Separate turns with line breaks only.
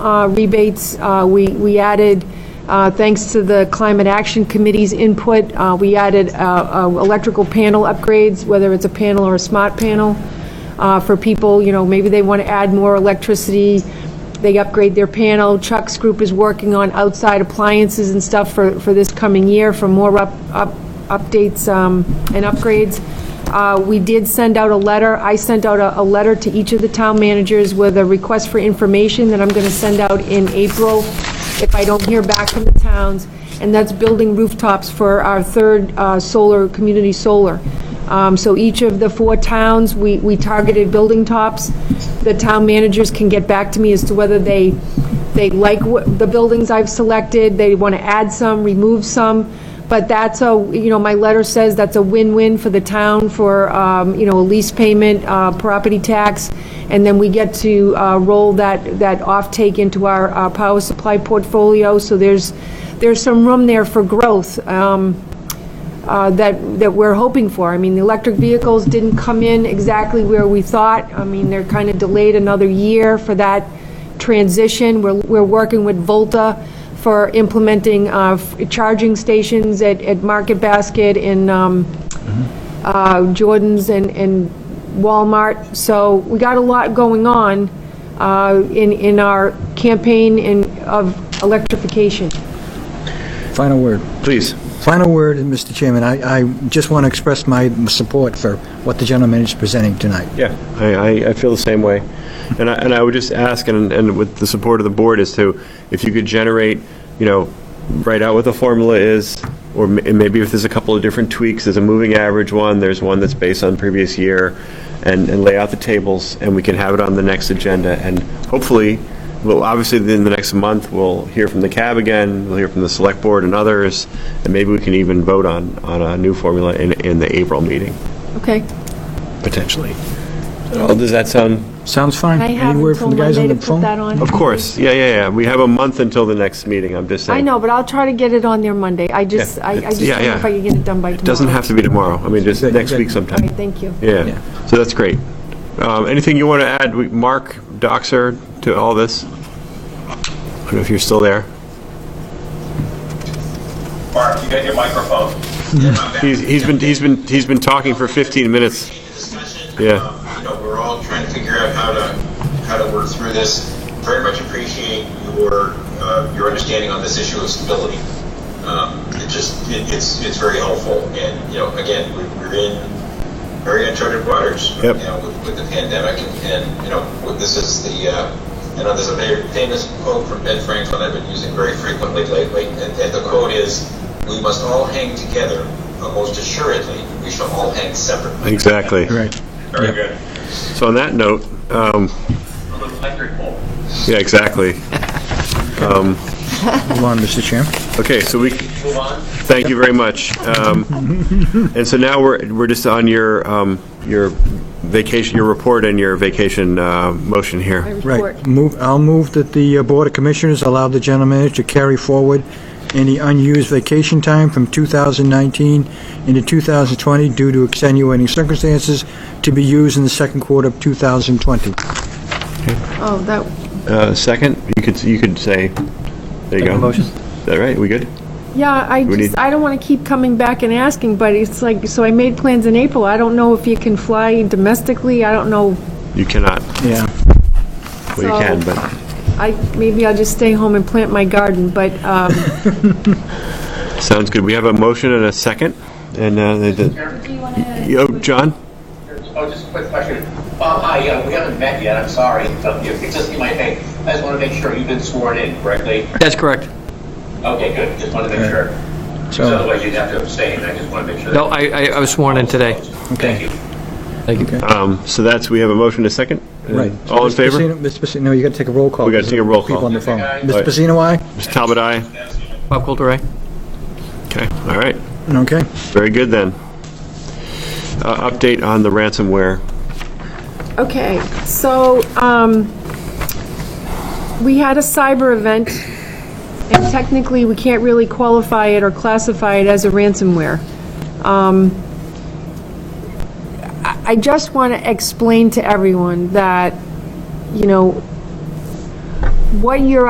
uh, rebates. Uh, We we added, uh, thanks to the Climate Action Committee's input, uh, we added uh, uh, electrical panel upgrades, whether it's a panel or a smart panel, uh, for people, you know, maybe they want to add more electricity, they upgrade their panel. Chuck's group is working on outside appliances and stuff for for this coming year for more up up updates um, and upgrades. Uh, We did send out a letter, I sent out a, a letter to each of the town managers with a request for information that I'm going to send out in April if I don't hear back from the towns, and that's building rooftops for our third uh, solar, community solar. Um, So each of the four towns, we, we targeted building tops. The town managers can get back to me as to whether they, they like what- the buildings I've selected, they want to add some, remove some. But that's a, you know, my letter says that's a win-win for the town for, um, you know, a lease payment, uh, property tax, and then we get to uh, roll that, that offtake into our uh, power supply portfolio. So there's, there's some room there for growth um, uh, that, that we're hoping for. I mean, the electric vehicles didn't come in exactly where we thought. I mean, they're kind of delayed another year for that transition. We're, we're working with Volta for implementing uh, f- charging stations at, at Market Basket in um,
Mm-hmm.
uh, Jordans and and Walmart. So we got a lot going on uh, in, in our campaign in, of electrification.
Final word.
Please.
Final word, and Mr. Chairman, I, I just want to express my support for what the gentleman is presenting tonight.
Yeah, I, I, I feel the same way. And I, and I would just ask, and, and with the support of the board, is to, if you could generate, you know, write out what the formula is, or ma- and maybe if there's a couple of different tweaks, there's a moving average one, there's one that's based on previous year, and, and lay out the tables, and we can have it on the next agenda, and hopefully, well, obviously, in the next month, we'll hear from the cab again, we'll hear from the select board and others, and maybe we can even vote on, on a new formula in, in the April meeting,
Okay?
potentially. Oh, Does that sound?
Sounds fine.
I have
Any word
until
from the guys
Monday
on
to
the
put
phone?
that on.
Of course, yeah, yeah, yeah. We have a month until the next meeting, I'm just saying.
I know, but I'll try to get it on there Monday. I just,
Yeah,
I I
it's-
just
yeah,
don't know
yeah.
if I can get it done by tomorrow.
Doesn't have to be tomorrow, I mean, just
Good,
next
good.
week
All right,
sometime.
thank you.
Yeah.
Yeah, so that's great. Um, Anything you want to add, We- Mark Doxer, to all this? I don't know if you're still there.
Mark, you got your microphone.
He's he's been, he's been, he's been talking for 15 minutes.
Discussion.
Yeah.
Um, You know, we're all trying to figure out how to, how to work through this. Very much appreciate your, uh, your understanding on this issue of stability. Um, It just, it- it's, it's very helpful, and, you know, again, we- we're in very uncharted waters. right
Yep.
now with, with the pandemic, and, and, you know, what- this is the, uh, you know, there's a very famous quote from Ben Franklin I've been using very frequently lately, and, and the quote is, "We must all hang together, but most assuredly, we shall all hang separately."
Exactly.
Right.
Very good.
So on that note, um,
From an electric pole.
yeah, exactly.
Move on, Mr. Chairman.
Okay, so we,
Move on.
Thank you very much. Um, And so now we're, we're just on your, um, your vacation, your report and your vacation uh, motion here.
Report.
Right. Move, I'll move that the uh, Board of Commissioners allow the general manager to carry forward any unused vacation time from 2019 into 2020 due to extenuating circumstances to be used in the second quarter of 2020.
Oh, that,
Uh, Second, you could, you could say, there you go. Motion. Is that right? We good?
yeah, I
We
just,
need-
I don't want to keep coming back and asking, but it's like, so I made plans in April. I don't know if you can fly domestically. I don't know.
You cannot.
Yeah.
Well, you can,
So-
but,
I, maybe I'll just stay home and plant my garden, but, um,
sounds good. We have a motion and a second, and, uh, they did-
Do you want to?
yo, John?
Oh, just a quick question. Bob, hi, yeah, we haven't met yet, I'm sorry. Um, you- It's just in my head. I just want to make sure you've been sworn in correctly.
That's correct.
Okay, good, just want to make sure. Because
So,
otherwise you'd have to abstain, I just want to make sure.
No, I, I I was sworn in today.
Thank you.
Thank you.
Um, So that's, we have a motion and a second?
right.
All in
Mr.
favor?
Pacino- Mr. Pacino, no, you got to take a roll call.
We gotta take a roll
People
call.
on the phone.
Aye.
Mr. Pacino, aye?
Mr. Talbot, aye?
Bob Coulter, aye?
Okay, all right.
Okay.
Very good, then. Uh, Update on the ransomware.
Okay, so, um, we had a cyber event, and technically, we can't really qualify it or classify it as a ransomware. Um, I I just want to explain to everyone that, you know, what your